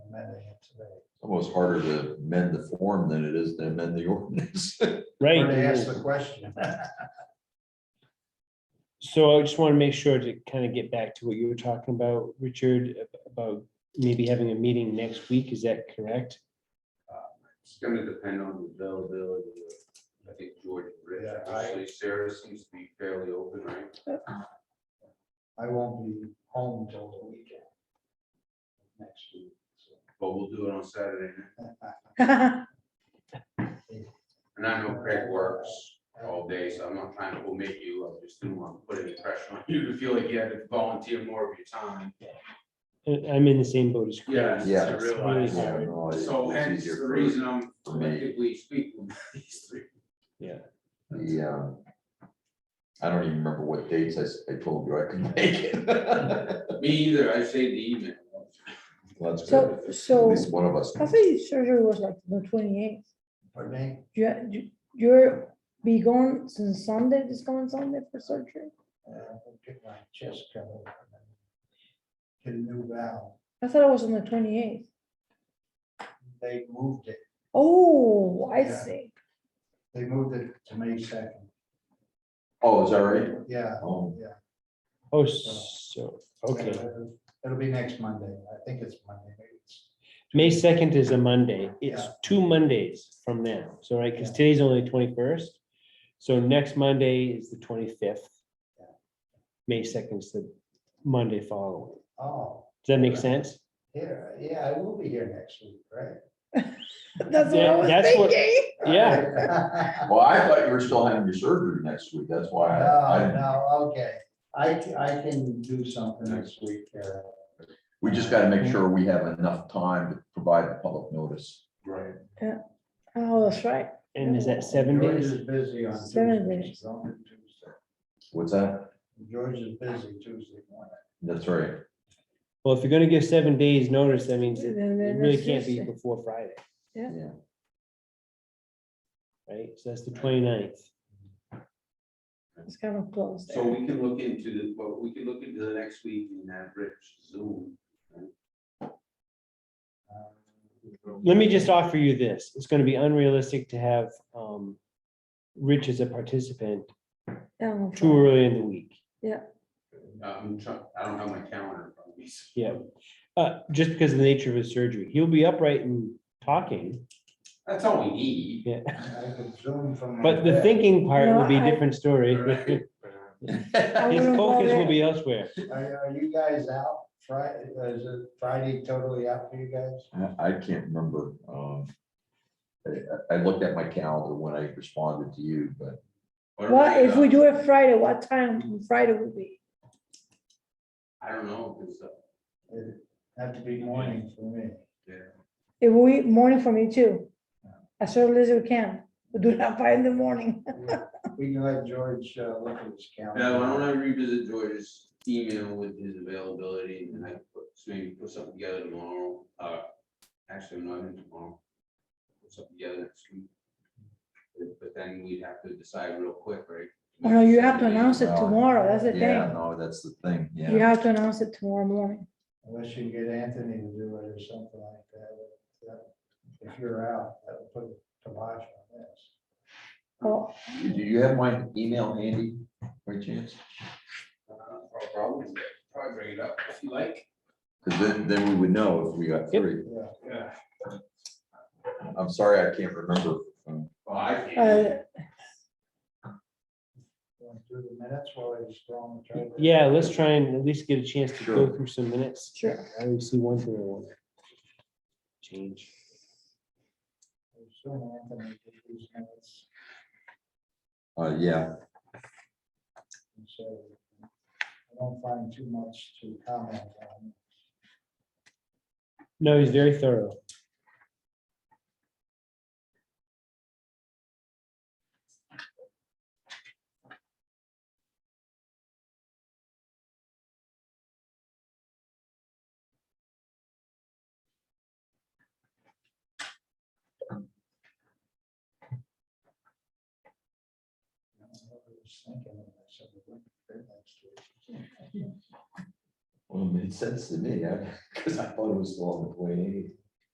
amending it today. Almost harder to amend the form than it is to amend the ordinance. Or to ask Right, the question. so I just want to make sure to kind of get back to what you were talking about, Richard, ab- about maybe having a meeting next week, is that correct? It's gonna depend on the availability of, I think, George and Rich. Yeah, I- Actually, Sarah seems to be fairly open, right? I won't be home till the weekend. Next week. so. But we'll do it on Saturday. night. Right. And I know Craig works all day, so I'm not trying to omit you. I just didn't want to put any pressure on you to feel like you had to volunteer more of your time. I- I'm in the same boat as Chris. Yes, Yeah. I realize. Yeah. So hence the reason I'm for me. collectively speaking, these three. The, um, I don't even remember what dates I, s- I told you I could make it. Me either, I saved the email. Let's So, go. At so least one of us. I think surgery was like the twenty-eighth. Pardon me? You're be gone since Sunday, this coming Sunday for surgery? Uh, I'll Get my chest covered. and then Get a new valve. I thought it was on the twenty-eighth. They moved it. Oh, I Yeah. see. They moved it to May second. Oh, is that right? Yeah. Oh, Oh, so, okay, it'll- Uh, It'll be next Monday. I think it's Monday. maybe it's- May second is a Monday, it's Yeah. two Mondays from now, so right, because Yeah. today's only twenty-first. So next Monday is the twenty-fifth. Yeah. May second is the Monday following, Oh, does that make sense? here, yeah, I will be here next week, right? That's what Yeah, I was that's what- thinking. Yeah, well, I thought you were still having your surgery next week. That's why I, No, I- Oh, no, okay. I, c- I can do something next week. uh, we just gotta make sure we have enough time to provide the public notice. Right. Oh, that's right. and is that seven George days? is busy on Seven Tuesday. days. so I'm on Tuesday. What's that? George is busy Tuesday morning. That's right. Well, if you're gonna give seven days notice, that means it Then- it then really that's can't be Tuesday. before Friday. Yeah. Yeah. Right, so that's the 29th. It's kind of close So there. we can look into the, well, we can look into the next week in that Rich Zoom. Um, Let me just offer you this, it's gonna be unrealistic to have um Rich as a participant Yeah, I'm too fine. early in the week. Uh, I'm trying, I don't have my calendar in front of me. so- Yeah, uh, just because of the nature of his surgery, he'll be upright and talking, That's all we need. yeah, I could zoom from. my but the bed. thinking part will be a No, I- different story. Right. I His wouldn't bother. focus will be elsewhere. Are, are you guys out Friday? Is it Friday totally out for you guys? I- I can't remember. um, I, I I looked at my calendar when I responded to you, but What, if we about- do it Friday, what time on Friday would be? I don't know, because, It'd Have to be morning for me. It will be morning for me too. As early as we can. We do not by in the morning. We can let George uh, look at his calendar. yeah, why don't I revisit George's email with his availability and then I put, so maybe put something together tomorrow, uh, actually, not even tomorrow. Put something together next week. But- But then we'd have to decide real quick, right? Oh, no, you have to announce it Uh, Well, tomorrow. That's the yeah, thing. no, that's the thing, You yeah. have to announce it tomorrow morning. Unless you can get Anthony to do it or something like that. that- If you're out, that'll put a kibosh on this. Oh, Do you have my email handy, by chance? Uh, I'll Probably, probably bring it up if you like. Because then, then we would know if we got Yep. three. Yeah, Yeah. I'm sorry, I can't remember. um, Well, I uh, can't. going through the minutes while I was scrolling. through it. Yeah, let's try and at least get a chance to go Sure. through some minutes. Sure. I always see one thing I want to change. I assume Anthony did these minutes, Uh, yeah, and so I don't find too much to comment on. No, he's very thorough. I was thinking, and I said, "We're going to print next week." well, it made sense to me, because I thought it was still on the twenty-eighth.